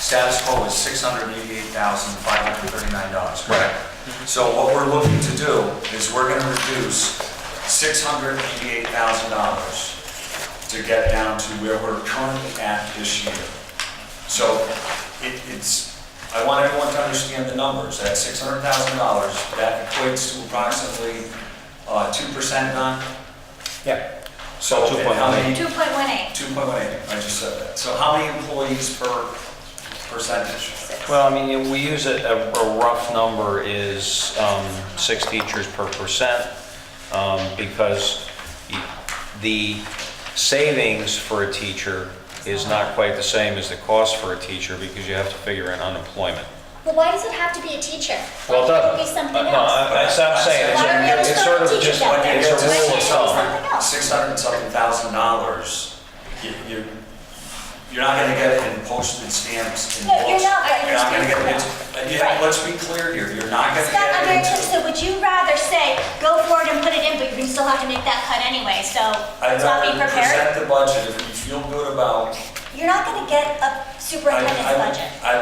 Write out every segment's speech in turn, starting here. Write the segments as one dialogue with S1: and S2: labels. S1: status quo is six hundred eighty-eight thousand, five hundred thirty-nine dollars.
S2: Right.
S1: So what we're looking to do is we're gonna reduce six hundred eighty-eight thousand dollars to get down to where we're currently at this year. So it, it's, I want everyone to understand the numbers, that six hundred thousand dollars, that equates to approximately, uh, two percent on.
S2: Yeah.
S1: So and how many?
S3: 2.18.
S1: Two point one eight, I just said that. So how many employees per percentage?
S2: Well, I mean, we use a, a a rough number is um, six teachers per percent, um, because y- the savings for a teacher is not quite the same as the cost for a teacher, because you have to figure in unemployment.
S3: Well, why does it have to be a teacher?
S2: Well, it
S3: Why can't it
S2: doesn't.
S3: be something
S2: Uh, no,
S3: else?
S2: I- That's what I'm saying,
S3: Why are we
S2: It's- it's sort of
S3: teaching
S2: just,
S3: them
S1: when
S3: that?
S2: it's
S1: it's
S2: a
S1: a
S3: Why can't
S2: rule of
S3: it be
S2: thumb.
S3: something else?
S1: six hundred and something thousand dollars, you- you're, you're not gonna get it in postage stamps and
S3: No, you're
S1: books.
S3: not, I
S1: You're not gonna get it,
S3: understand
S1: into- and yeah,
S3: Right.
S1: let's be clear here, you're not gonna
S3: It's not
S1: get
S3: under,
S1: it into.
S3: so would you rather say, go forward and put it in, but you're gonna still have to make that cut anyway, so
S1: I'd
S3: let's not be
S1: rather
S3: prepared?
S1: present the budget, if you feel good about.
S3: You're not gonna get a
S1: I-
S3: superintendent's
S1: I-
S3: budget.
S1: I,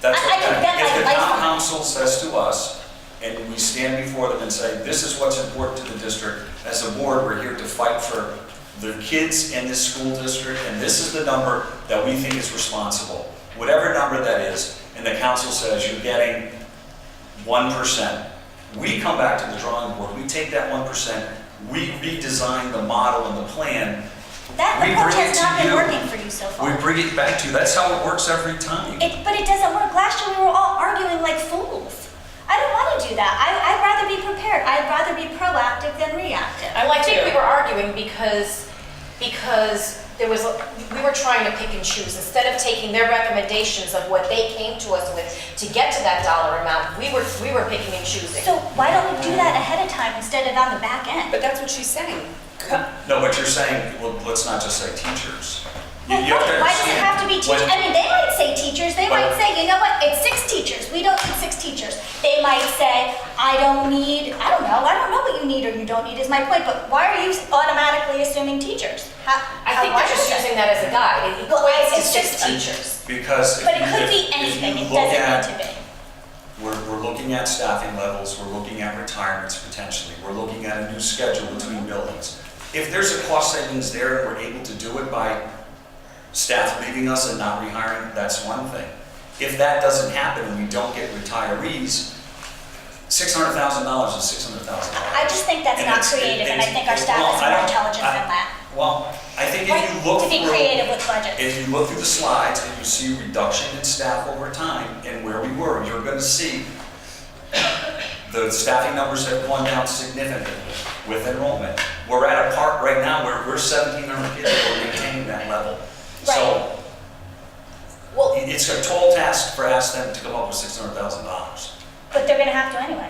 S1: that's,
S3: I- I can bet
S1: if the
S3: my life
S1: town
S3: on it.
S1: council says to us, and we stand before them and say, this is what's important to the district, as a board, we're here to fight for the kids in this school district, and this is the number that we think is responsible, whatever number that is, and the council says you're getting one percent. We come back to the drawing board, we take that one percent, we redesign the model and the plan,
S3: That
S1: we
S3: approach
S1: bring it
S3: has
S1: to
S3: not been
S1: you.
S3: working for you so far.
S1: we bring it back to you, that's how it works every time.
S3: It, but it doesn't work. Last year we were all arguing like fools. I don't want to do that. I, I'd rather be prepared. I'd rather be proactive than reactive.
S4: I like think we were arguing because, because there was, a- we were trying to pick and choose. Instead of taking their recommendations of what they came to us with to get to that dollar amount, we were, we were picking and choosing.
S3: So why don't we do that ahead of time instead of on the back end?
S5: But that's what she's saying.
S1: No, but you're saying, well, let's not just say teachers. You-
S3: Well,
S1: you have to
S3: Why does it
S1: understand
S3: have to be teachers?
S1: when-
S3: I mean, they might say teachers. They might
S1: But-
S3: say, you know what, it's six teachers. We don't need six teachers. They might say, I don't need, I don't know, I don't know what you need or you don't need is my point, but why are you automatically assuming teachers? How,
S4: I
S3: how-
S4: think
S3: why
S4: they're just
S3: is that?
S4: using that as a guide. It
S3: Well,
S4: equates to
S3: it's
S4: six
S3: just-
S4: teachers.
S1: Because. if
S3: But it
S1: you-
S3: could
S1: if-
S3: be
S1: if you
S3: anything. It
S1: look
S3: doesn't
S1: at-
S3: need to be.
S1: We're, we're looking at staffing levels, we're looking at retirements potentially, we're looking at a new schedule between buildings. If there's a cost savings there and we're able to do it by staff leaving us and not rehiring, that's one thing. If that doesn't happen and we don't get retirees, six hundred thousand dollars is six hundred thousand dollars.
S3: I just think that's not creative, and I think our staff is more intelligent than that.
S1: Well, I think if
S3: Right?
S1: you look
S3: To
S1: through.
S3: be creative with budgets.
S1: If you look through the slides and you see reduction in staff over time and where we were, you're gonna see the staffing numbers have gone down significantly with enrollment. We're at a part right now where we're seventeen hundred kids, we're maintaining that level. So
S4: Well,
S1: it- it's a tall task for us them to come up with six hundred thousand dollars.
S3: But they're gonna have to anyway.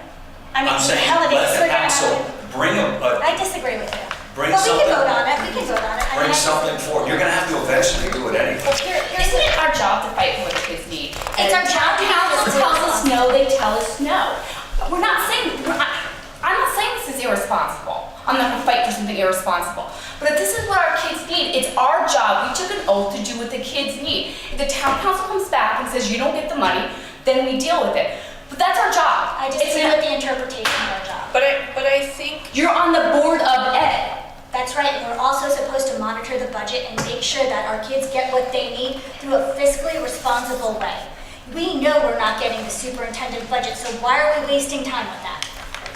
S3: I mean,
S1: I'm saying,
S3: hell, it is,
S1: let
S3: we're
S1: the
S3: gonna have
S1: council
S3: to.
S1: bring a, a
S3: I disagree with you.
S1: Bring
S3: But we
S1: something-
S3: can vote on it, we can vote on it. I mean, I
S1: bring
S3: just-
S1: something forward. You're gonna have to eventually do it anyway.
S4: well, here, here's
S6: Isn't
S4: the,
S6: it our job to fight for what the kids need?
S3: It's our job to
S6: If
S3: have
S6: Council tells us
S3: responsible.
S6: no, they tell us no. We're not saying, we're not- I'm not saying this is irresponsible. I'm not gonna fight for something irresponsible. But if this is what our kids need, it's our job. We took an oath to do what the kids need. If the town council comes back and says you don't get the money, then we deal with it. But that's our job.
S3: I
S6: It's
S3: disagree
S6: not-
S3: with the interpretation of our job.
S5: But I, but I think
S6: You're on the board of ed.
S3: That's right, and we're also supposed to monitor the budget and make sure that our kids get what they need through a fiscally responsible way. We know we're not getting the superintendent budget, so why are we wasting time with that?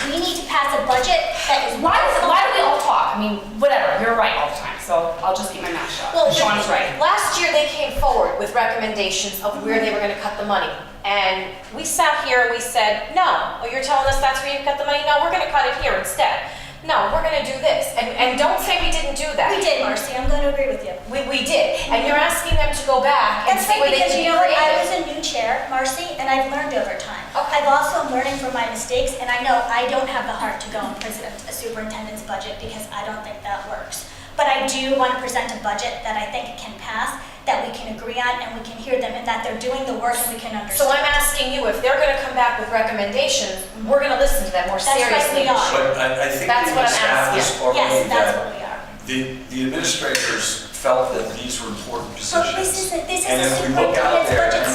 S3: We need to pass a budget that is.
S6: Why, does- why do we all talk? I mean, whatever, you're right all the time, so I'll just keep my mouth shut.
S4: well,
S6: Sean's right.
S4: last year they came forward with recommendations of
S3: Mm-hmm.
S4: where they were gonna cut the money. And we sat here and we said, no, well, you're telling us that's where you cut the money? No, we're gonna cut it here instead. No, we're gonna do this. And, and don't say we didn't do that.
S3: We did, Marcy, I'm going to agree with you.
S4: We, we did, and you're asking them to go back and
S3: That's
S4: see
S3: right,
S4: where they
S3: because
S4: can
S3: you
S4: be
S3: know, what? I was
S4: creative.
S3: a new chair, Marcy, and I've learned over time.
S4: Okay.
S3: I've also learning from my mistakes, and I know I don't have the heart to go and present a superintendent's budget because I don't think that works. But I do want to present a budget that I think can pass, that we can agree on, and we can hear them, and that they're doing the work and we can
S4: So
S3: understand.
S4: I'm asking you, if they're gonna come back with recommendations, we're gonna listen to them more
S3: right, we
S4: seriously.
S3: are.
S1: But I, I think
S4: That's
S1: we've
S4: what I'm
S1: established
S4: asking.
S1: already
S3: Yes, that's
S1: that
S3: what we are.
S1: the, the administrators felt that these were important
S3: But
S1: positions.
S3: this is, a- this is
S1: And
S3: a
S1: if we look out
S3: superintendent's
S1: there
S3: budget
S1: and